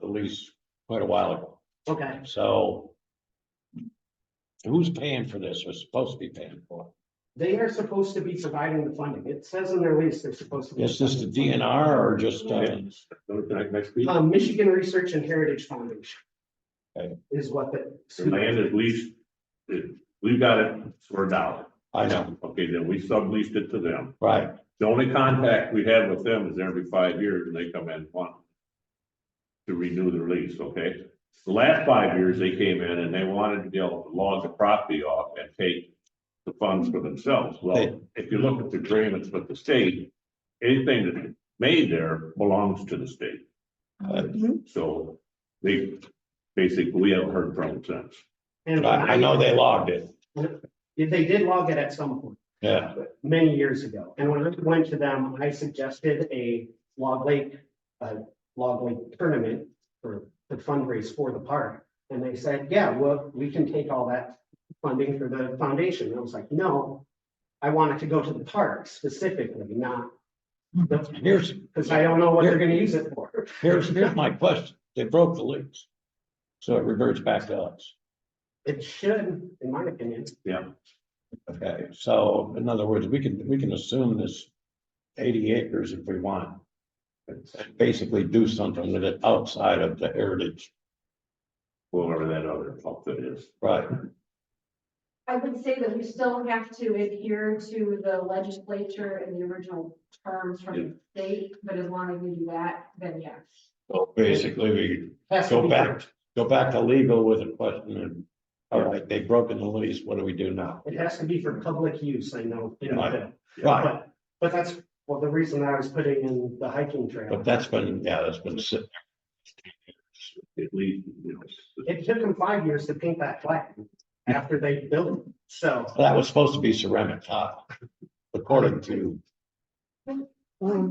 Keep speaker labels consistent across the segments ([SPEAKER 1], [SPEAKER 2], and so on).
[SPEAKER 1] police uh, quite a while ago,
[SPEAKER 2] Okay,
[SPEAKER 1] so. Who's paying for this? Or supposed to be paying for?
[SPEAKER 2] they are supposed to be providing the funding. It says in their lease, they're supposed to.
[SPEAKER 1] it?
[SPEAKER 2] be
[SPEAKER 1] Is this the DNR or just, uh,
[SPEAKER 3] Next week,
[SPEAKER 2] Um, Michigan Research and Heritage Foundation.
[SPEAKER 1] Okay.
[SPEAKER 2] Is what the.
[SPEAKER 3] the land is leased, it- we got it for a dollar.
[SPEAKER 1] I know,
[SPEAKER 3] Okay, then we subleased it to them.
[SPEAKER 1] right,
[SPEAKER 3] The only contact we have with them is every five years and they come in one. To renew their lease, okay? The last five years, they came in and they wanted to be able to log the property off and take the funds for themselves. Well, if you look at the agreements with the state, anything that's made there belongs to the state. So they, basically, we haven't heard from them since.
[SPEAKER 2] And
[SPEAKER 1] I, I know they logged it,
[SPEAKER 2] They did log it at some point.
[SPEAKER 1] yeah,
[SPEAKER 2] many years ago. And when I went to them, I suggested a log lake, a log lake tournament for to fundraise for the park. And they said, yeah, well, we can take all that funding for the foundation. And I was like, no, I want it to go to the park specifically, not
[SPEAKER 1] Hmm. here's,
[SPEAKER 2] because I don't know what they're gonna use it for.
[SPEAKER 1] here's, here's my question, they broke the lease. So it reverts back to us,
[SPEAKER 2] It should, in my opinion.
[SPEAKER 1] okay, so in other words, we can, we can assume this eighty acres if we want. Basically do something with it outside of the heritage,
[SPEAKER 3] Whoever that other outfit is.
[SPEAKER 1] right,
[SPEAKER 4] I would say that we still have to adhere to the legislature and the original terms from the state, but as long as we do that, then yes.
[SPEAKER 1] so basically we
[SPEAKER 2] has to
[SPEAKER 1] Go
[SPEAKER 2] be-
[SPEAKER 1] back, go back to legal with a question and, all right, they've broken the lease, what do we do now?
[SPEAKER 2] It has to be for public use, I know. you know,
[SPEAKER 1] Right.
[SPEAKER 2] but-
[SPEAKER 1] Right,
[SPEAKER 2] But, but that's, well, the reason I was putting in the hiking trail.
[SPEAKER 1] but that's been, yeah, that's been sitting.
[SPEAKER 3] At least, you know,
[SPEAKER 2] It took them five years to paint that flag after they built it, so.
[SPEAKER 1] That was supposed to be ceramic tile, according to,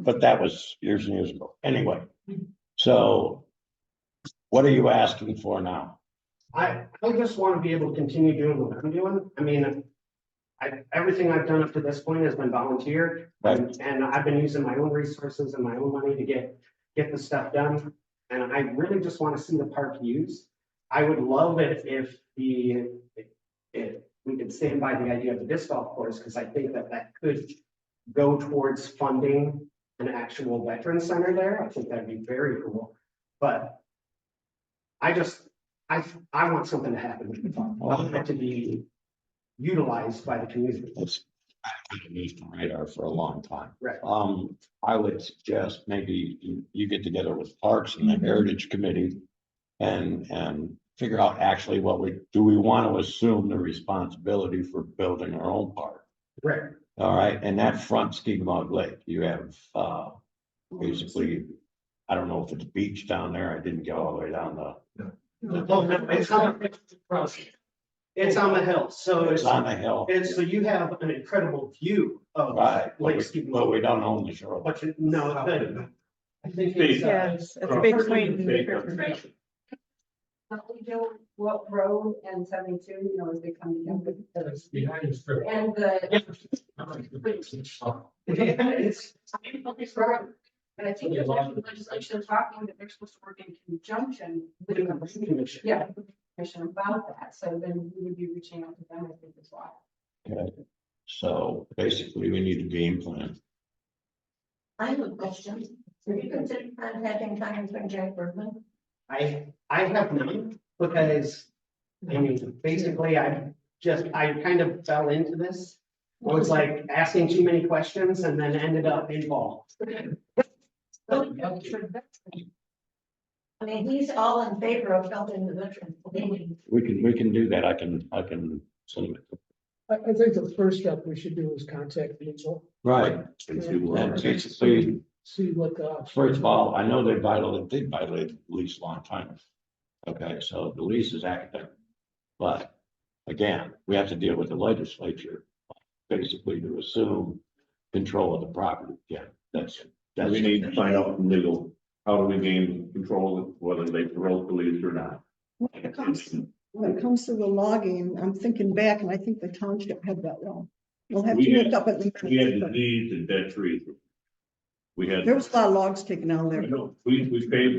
[SPEAKER 1] but that was years and years ago. Anyway, so what are you asking for now?
[SPEAKER 2] I, I just want to be able to continue doing what I'm doing. I mean, I, everything I've done up to this point has been volunteer. And, and I've been using my own resources and my own money to get, get the stuff done. And I really just want to see the park used. I would love it if the, if we could stand by the idea of the disc golf course, because I think that that could go towards funding an actual veteran center there. I think that'd be very cool. But I just, I, I want something to happen with the farm. I want it to be utilized by the community.
[SPEAKER 1] It's, I've been used to radar for a long time.
[SPEAKER 2] Right.
[SPEAKER 1] Um, I would suggest maybe you, you get together with Parks and the
[SPEAKER 2] Mm-hmm.
[SPEAKER 1] Heritage Committee. And, and figure out actually what we, do we want to assume the responsibility for building our own park?
[SPEAKER 2] Right.
[SPEAKER 1] All right, and that front Skigmog Lake, you have, uh, basically, I don't know if it's beach down there, I didn't go all the way down the.
[SPEAKER 2] Well, no, It's on it's on the hill, so Oh, it's,
[SPEAKER 1] It's on the hill.
[SPEAKER 2] it's, so you have an incredible view of
[SPEAKER 1] Right, but
[SPEAKER 2] Lake
[SPEAKER 1] we, but
[SPEAKER 2] Skidmore.
[SPEAKER 1] we don't own the shore.
[SPEAKER 2] But you, no, the- I think it's, uh,
[SPEAKER 5] Yes, it's a big
[SPEAKER 3] it's big.
[SPEAKER 5] point.
[SPEAKER 4] Now, we know what road and seventy-two, you know, as they come together. And the,
[SPEAKER 2] it's,
[SPEAKER 4] but I think there's actually legislation talking that they're supposed to work in conjunction with
[SPEAKER 2] it's a
[SPEAKER 4] the
[SPEAKER 2] planning commission.
[SPEAKER 4] yeah, commission about that. So then we would be reaching out to them, I think, as well.
[SPEAKER 1] So basically, we need a game plan.
[SPEAKER 6] I have a question. Have you considered contacting Congressman Jack Bergman?
[SPEAKER 2] I, I have none, because, I mean, basically, I just, I kind of fell into this. I was like asking too many questions and then ended up involved.
[SPEAKER 5] Oh,
[SPEAKER 6] I mean, he's all in favor of helping the veterans. Believe
[SPEAKER 1] We can, we can do that, I can, I can send them.
[SPEAKER 7] I, I think the first step we should do is contact Angel,
[SPEAKER 1] Right,
[SPEAKER 3] and see
[SPEAKER 1] and
[SPEAKER 3] what-
[SPEAKER 1] basically,
[SPEAKER 7] see what the options.
[SPEAKER 1] first of all, I know they violated, did violate the lease a long time. Okay, so the lease is active. But again, we have to deal with the legislature, basically to assume control of the property, yeah, that's, that's.
[SPEAKER 3] We need to find out from legal, how do we gain control of whether they parole police or not?
[SPEAKER 8] When it comes, when it comes to the logging, I'm thinking back and I think the township had that law. We'll have
[SPEAKER 3] We
[SPEAKER 8] to
[SPEAKER 3] had-
[SPEAKER 8] look up at the.
[SPEAKER 3] We had
[SPEAKER 8] minutes, but
[SPEAKER 3] disease and dead trees. We had.
[SPEAKER 8] There was a lot of logs taken out of there.
[SPEAKER 3] We, we paid